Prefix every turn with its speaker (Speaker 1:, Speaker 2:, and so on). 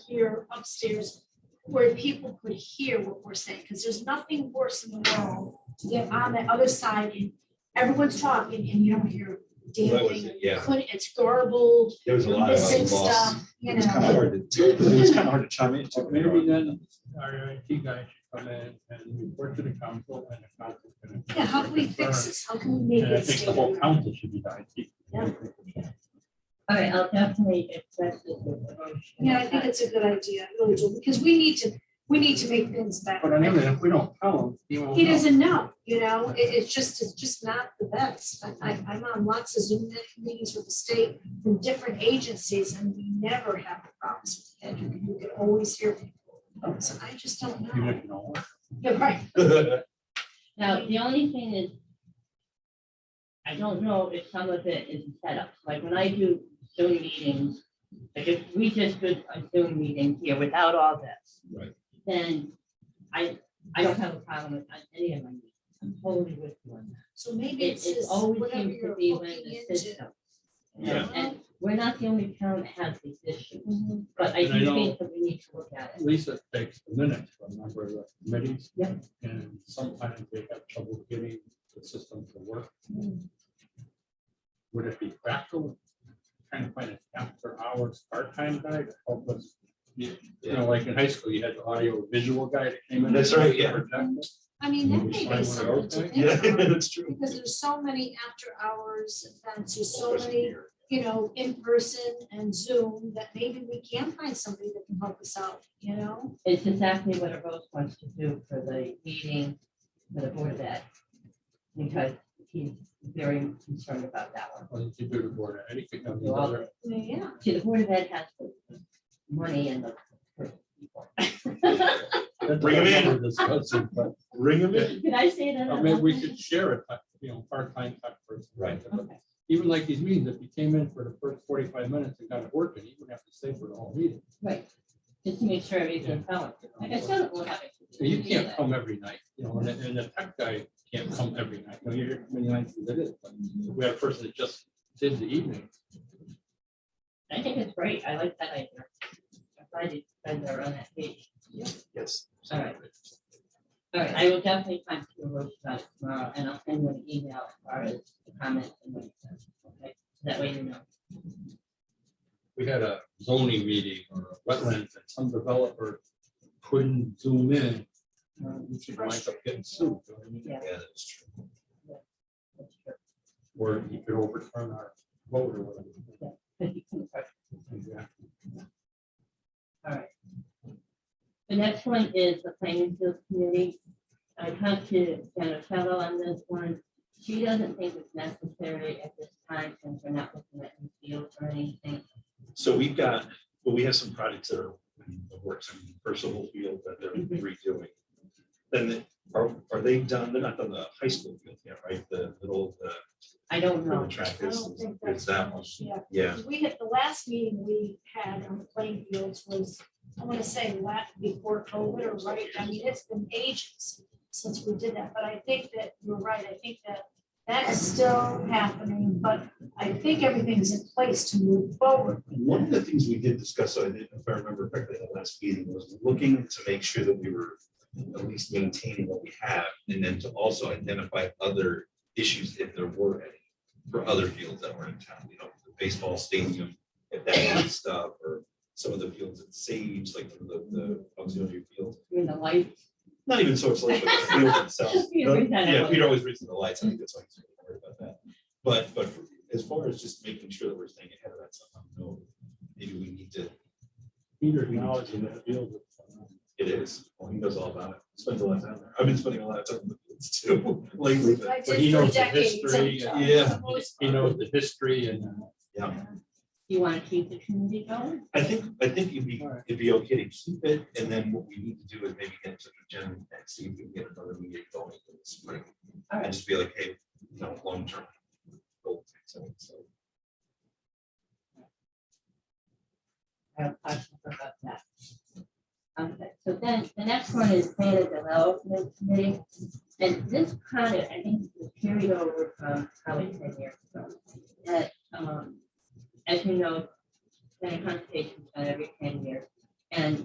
Speaker 1: here upstairs where people could hear what we're saying, because there's nothing worse in the world to get on the other side and everyone's talking and you don't hear a
Speaker 2: That
Speaker 1: damn
Speaker 2: was
Speaker 1: thing.
Speaker 2: it, yeah.
Speaker 1: Couldn't, it's garbled,
Speaker 2: There was a
Speaker 1: you're
Speaker 2: lot of
Speaker 1: missing
Speaker 2: loss.
Speaker 1: stuff, uh, you
Speaker 3: It's kind of
Speaker 1: know.
Speaker 3: hard to, it was kind of hard to chime in.
Speaker 4: Or Maybe then our IT guy should come in and report to the council and the council. can-
Speaker 1: Yeah, how can we fix this? How can we make
Speaker 4: And I
Speaker 1: it
Speaker 4: think the
Speaker 1: stay?
Speaker 4: whole council should be the IT.
Speaker 1: Yeah.
Speaker 5: All right, I'll definitely address it with the motion.
Speaker 1: Yeah, I think it's a good idea, I really do, because we need to, we need to make things better.
Speaker 4: But I know that if we don't tell him, he won't.
Speaker 1: He
Speaker 4: know.
Speaker 1: doesn't know, you know, it, it's just, it's just not the best. I- I, I'm on lots of Zoom meetings with the state from different agencies and we never have problems with that. You can- you can always hear people. So I just don't
Speaker 4: Even
Speaker 1: know.
Speaker 4: if you don't.
Speaker 1: Yeah, right.
Speaker 5: Now, the only thing is, I don't know if some of it is set up, like when I do Zoom meetings, like if we just did a Zoom meeting here without all this.
Speaker 2: Right.
Speaker 5: Then I, I don't have a problem with any of my meetings, I'm totally with you on that.
Speaker 1: So maybe
Speaker 5: It,
Speaker 1: it's
Speaker 5: it
Speaker 1: just
Speaker 5: always
Speaker 1: whatever
Speaker 5: seems to
Speaker 1: you're
Speaker 5: be
Speaker 1: looking
Speaker 5: when the
Speaker 1: into.
Speaker 5: system.
Speaker 2: Yeah.
Speaker 5: And we're not the only town that has these issues,
Speaker 1: Mm-hmm.
Speaker 5: but I
Speaker 4: And I
Speaker 5: do
Speaker 4: know-
Speaker 5: think that we need to look at it.
Speaker 4: Lisa takes the minutes from a number of the committees.
Speaker 5: Yeah.
Speaker 4: And sometimes they have trouble getting the system to work. Would it be practical, trying to find a after hours part-time guy to help us? You you know, like in high school, you had the audio visual guy that came in.
Speaker 2: That's right, yeah.
Speaker 4: Projector.
Speaker 1: I mean, that may
Speaker 4: Find one
Speaker 1: be
Speaker 4: of
Speaker 1: something to
Speaker 4: those,
Speaker 2: Yeah,
Speaker 1: think about.
Speaker 2: that's true.
Speaker 1: Because there's so many after hours events, there's so
Speaker 2: Wasn't
Speaker 1: many,
Speaker 2: here.
Speaker 1: you know, in person and Zoom that maybe we can find somebody that can help us out, you know?
Speaker 5: It's exactly what a Rose wants to do for the meeting, for the board of ed. Because he's very concerned about that one.
Speaker 4: Well, you could do the board, of ed, you could have the
Speaker 5: Well,
Speaker 4: other.
Speaker 1: Yeah.
Speaker 5: See, the board of ed has the money and the. for people.
Speaker 2: Bring 'em in.
Speaker 4: We're discussing, but-
Speaker 2: Ring them in.
Speaker 5: Did I say that?
Speaker 4: Or maybe we could share it, but, you know, part-time type person.
Speaker 2: Right.
Speaker 5: Okay.
Speaker 4: even like these meetings, if you came in for the first forty-five minutes and got it working, you wouldn't have to stay for the whole meeting.
Speaker 5: Right, just to make sure everything's going. Like I said, we'll have it.
Speaker 4: So You can't come every night, you know, and, the- and the tech guy can't come every night, you know, you're, many nights as it is, but if we have a person that just did the evening.
Speaker 5: I think it's great, I like that idea. I'm glad you guys are on that page.
Speaker 2: Yes.
Speaker 5: All right. All right, I will definitely find you a road about it tomorrow, and I'll send you an email as far as the comments and what it says, okay? That way you know.
Speaker 4: We had a zoning meeting or a wetlands, and some developer couldn't zoom in. uh, Which would wind up getting sued, you know what I mean?
Speaker 5: Yeah.
Speaker 2: Yeah, that's true.
Speaker 5: what's your-
Speaker 4: or you could overturn our vote or whatever. uh,
Speaker 5: what you can afford.
Speaker 4: Exactly.
Speaker 5: All right. The next one is the planning field committee. I talked to Jenna Fellow on this one. She doesn't think it's necessary at this time since we're not looking at any fields or anything.
Speaker 2: So we've got, but we have some projects that are in the works in personal field that they're redoing. Then the- are, are they done? They're not done the high school field yet, right? The little, the
Speaker 5: I don't know.
Speaker 2: track
Speaker 1: I
Speaker 2: is,
Speaker 1: don't think that's
Speaker 2: is that one.
Speaker 1: Yeah,
Speaker 2: Yeah,
Speaker 1: We had, the last meeting we had on the playing fields was, I want to say, la before COVID or right, I mean, it's been ages since we did that, but I think that you're right, I think that that is still happening, but I think everything's in place to move forward.
Speaker 2: And One of the things we did discuss, I didn't, if I remember correctly, at the last meeting was looking to make sure that we were at least maintaining what we have and then to also identify other issues if there were any for other fields that were in town, you know, the baseball stadium, if that kind of stuff, or some of the fields at Sage, like the, the auxiliary fields.
Speaker 5: You're in the light.
Speaker 2: Not even Source Lake, but the field itself.
Speaker 5: You read that
Speaker 2: Yeah,
Speaker 5: out.
Speaker 2: Peter always reads the lights. I think that's why he's worried about that. But, but as far as just making sure that we're staying ahead of that stuff, I don't know, maybe we need to,
Speaker 4: Peter acknowledging that field. uh,
Speaker 2: it is, well, he knows all about it. Spends a lot of time there. I've been spending a lot of time in the fields too lately, but
Speaker 1: I did
Speaker 4: But he
Speaker 1: for
Speaker 4: knows the
Speaker 1: decades,
Speaker 4: history,
Speaker 1: I'm-
Speaker 2: yeah.
Speaker 1: I'm always-
Speaker 4: He knows the history and. uh,
Speaker 2: yeah.
Speaker 5: You want to keep the community going?
Speaker 2: I think, I think it'd be, it'd be okay to keep it, and then what we need to do is maybe get to the gym and see if we can get another meeting going in the spring. And just be like, hey, you know, long term. goal, so- so.
Speaker 5: I have questions about that. Okay, so then the next one is data development committee. And this kind of, I think, was carried over from probably ten years ago. That, um, as you know, the conservation done every ten years. And